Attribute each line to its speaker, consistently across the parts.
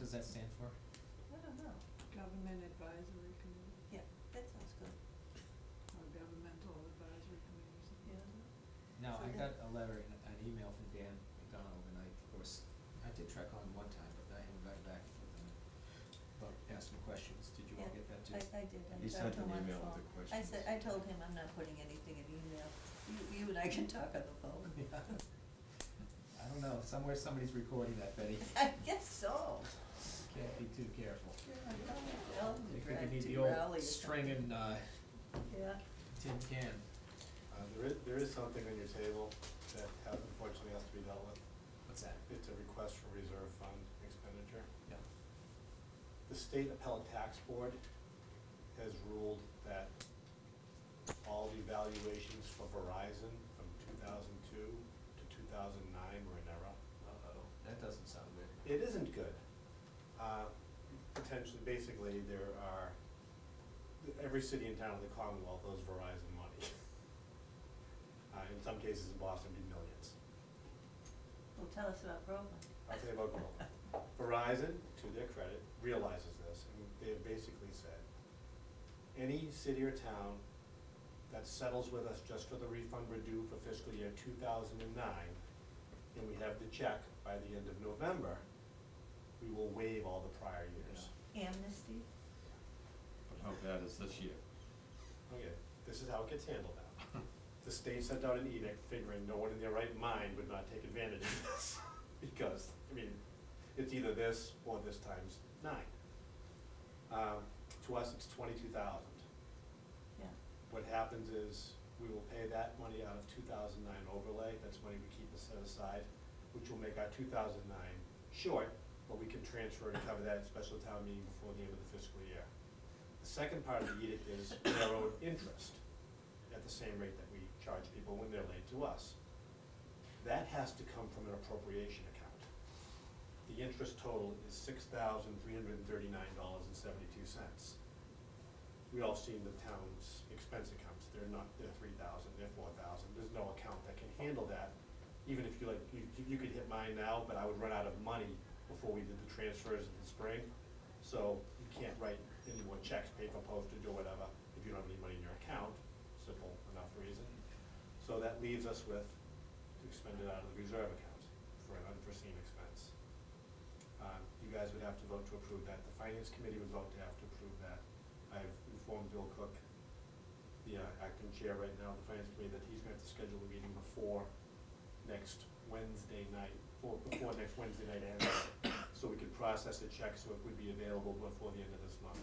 Speaker 1: does that stand for?
Speaker 2: I don't know,
Speaker 3: Government Advisory Committee,
Speaker 2: yeah, that sounds good,
Speaker 3: or Governmental Advisory Committee or something.
Speaker 2: yeah.
Speaker 1: No,
Speaker 2: So
Speaker 1: I got
Speaker 2: that-
Speaker 1: a letter and an email from Dan McDonald, and I, of course, I did track on one time, but I haven't gotten back with him. But asked him questions, did you all
Speaker 2: Yeah,
Speaker 1: get that too?
Speaker 2: I, I did, I
Speaker 4: You
Speaker 2: talked
Speaker 4: sent
Speaker 2: to him
Speaker 4: an
Speaker 2: on the
Speaker 4: email
Speaker 2: phone.
Speaker 4: with the
Speaker 2: I said,
Speaker 4: questions.
Speaker 2: I told him I'm not putting anything in email, you, you and I can talk on the phone.
Speaker 1: Yeah. I don't know, somewhere somebody's recording that, Betty,
Speaker 2: I guess so.
Speaker 1: can't be too careful.
Speaker 2: Yeah, I know.
Speaker 1: You
Speaker 2: Drag
Speaker 1: could need
Speaker 2: to
Speaker 1: the
Speaker 2: rally or
Speaker 1: old
Speaker 2: something.
Speaker 1: string and, uh,
Speaker 2: Yeah,
Speaker 1: tin can.
Speaker 5: Uh, there is, there is something on your table that has, unfortunately has to be dealt with.
Speaker 1: What's that?
Speaker 5: It's a request for reserve fund expenditure.
Speaker 1: Yeah.
Speaker 5: The state appellate tax board has ruled that all the valuations for Verizon from two thousand two to two thousand nine were in error.
Speaker 1: Uh-oh, that doesn't sound good.
Speaker 5: It isn't good. Uh, Potentially, basically, there are, every city and town in the Commonwealth owes Verizon money. Uh, In some cases, in Boston, it'd be millions.
Speaker 2: well, tell us about Groveland.
Speaker 5: I'll tell you about Groveland. Verizon, to their credit, realizes this, and they have basically said, any city or town that settles with us just for the refund we're due for fiscal year two thousand and nine, and we have the check by the end of November, we will waive all the prior years.
Speaker 2: Amnesty,
Speaker 4: But how bad is this year?
Speaker 5: Okay, this is how it gets handled now. The state sent out an edict figuring no one in their right mind would not take advantage of this, because, I mean, it's either this or this times nine. Um, to us, it's twenty-two thousand.
Speaker 2: yeah,
Speaker 5: What happens is, we will pay that money out of two thousand nine overlay, that's money we keep set aside, which will make our two thousand nine short, but we can transfer and cover that at special town meeting before the end of the fiscal year. The second part of the edict is we are owed interest at the same rate that we charge people when they're late to us. That has to come from an appropriation account. The interest total is six thousand three hundred and thirty-nine dollars and seventy-two cents. We all seen the town's expense accounts, they're not, they're three thousand, they're four thousand, there's no account that can handle that. Even if you like, you, you could hit mine now, but I would run out of money before we did the transfers in the spring. So you can't write any more checks, paper postage or whatever, if you don't have any money in your account, simple enough reason. So that leaves us with to expend it out of the reserve account for an unforeseen expense. Uh, You guys would have to vote to approve that. The finance committee would vote to have to approve that. I've informed Bill Cook, the uh, acting chair right now of the finance committee, that he's gonna have to schedule a meeting before next Wednesday night, or before next Wednesday night ends, so we could process the check, so it would be available before the end of this month.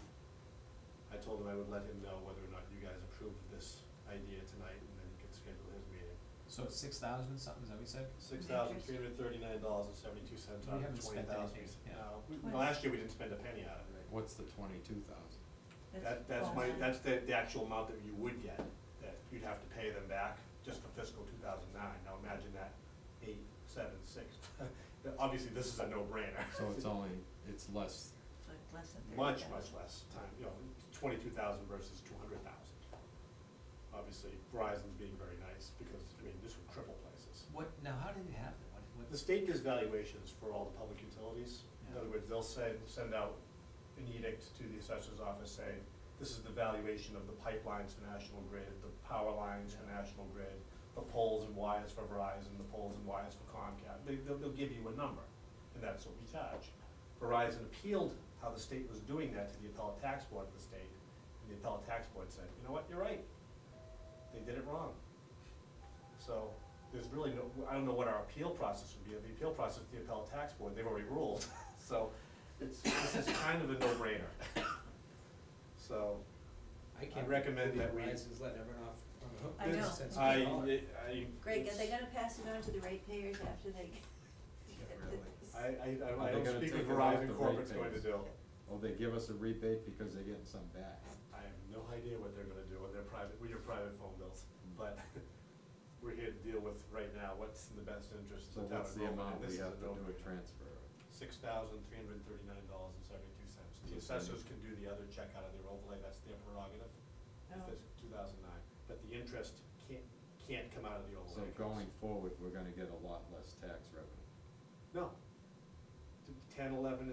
Speaker 5: I told him I would let him know whether or not you guys approved of this idea tonight, and then he could schedule his meeting.
Speaker 1: So it's six thousand something, is that what you said?
Speaker 5: Six thousand three hundred thirty-nine dollars and seventy-two cents
Speaker 1: We
Speaker 5: out of
Speaker 1: haven't
Speaker 5: twenty
Speaker 1: spent
Speaker 5: thousand.
Speaker 1: anything, yeah.
Speaker 2: Twenty.
Speaker 5: last year we didn't spend a penny out of it.
Speaker 4: What's the twenty-two thousand?
Speaker 2: that's.
Speaker 5: That, that's my,
Speaker 2: Groveland.
Speaker 5: that's the, the actual amount that you would get, that you'd have to pay them back just for fiscal two thousand nine. Now imagine that, eight, seven, six. Obviously, this is a no-brainer.
Speaker 4: So it's only, it's less,
Speaker 2: It's like less than thirty
Speaker 5: Much,
Speaker 2: thousand.
Speaker 5: much less time, you know, twenty-two thousand versus two hundred thousand. Obviously, Verizon's being very nice because, I mean, this would cripple places.
Speaker 1: What, now, how did it happen? What, what?
Speaker 5: The state gives valuations for all the public utilities. In
Speaker 1: Yeah.
Speaker 5: other words, they'll send, send out an edict to the assessor's office saying, this is the valuation of the pipelines for National Grid, the power lines for National Grid, the poles and wires for Verizon, the poles and wires for Comcast. They, they'll, they'll give you a number, and that's what we charge. Verizon appealed how the state was doing that to the appellate tax board of the state, and the appellate tax board said, you know what, you're right. They did it wrong. So there's really no, I don't know what our appeal process would be. The appeal process, the appellate tax board, they've already ruled. So it's, this is kind of a no-brainer. So
Speaker 1: I can't
Speaker 5: recommend
Speaker 1: believe
Speaker 5: that we-
Speaker 1: Verizon's letting everyone off on the hook.
Speaker 2: I know.
Speaker 5: this-
Speaker 1: Since
Speaker 5: I,
Speaker 1: we call it.
Speaker 5: I.
Speaker 2: Greg, are they
Speaker 5: it's-
Speaker 2: gonna pass it on to the ratepayers after they?
Speaker 1: really.
Speaker 5: I, I, I,
Speaker 4: Are
Speaker 5: I
Speaker 4: they
Speaker 5: don't
Speaker 4: gonna
Speaker 5: speak
Speaker 4: take it
Speaker 5: with
Speaker 4: off
Speaker 5: Verizon
Speaker 4: the
Speaker 5: Corporate's
Speaker 4: rate
Speaker 5: going to
Speaker 4: base?
Speaker 5: do.
Speaker 4: oh, they give us a rebate because they're getting some back.
Speaker 5: I have no idea what they're gonna do with their private, with your private phone bills,
Speaker 4: Hmm.
Speaker 5: but we're here to deal with right now what's in the best interest
Speaker 4: So
Speaker 5: of the town
Speaker 4: what's
Speaker 5: of
Speaker 4: the
Speaker 5: Groveland,
Speaker 4: amount
Speaker 5: and
Speaker 4: we
Speaker 5: this is Oh, a
Speaker 4: have to do a
Speaker 5: no-brainer.
Speaker 4: transfer?
Speaker 5: six thousand three hundred thirty-nine dollars and seventy-two cents. The assessors can do the other check out of their overlay, that's their prerogative, if
Speaker 2: Oh.
Speaker 5: it's two thousand nine, but the interest can't, can't come out of the
Speaker 4: So
Speaker 5: overlay. accounts.
Speaker 4: going forward, we're gonna get a lot less tax revenue.
Speaker 5: No. T- Ten, eleven,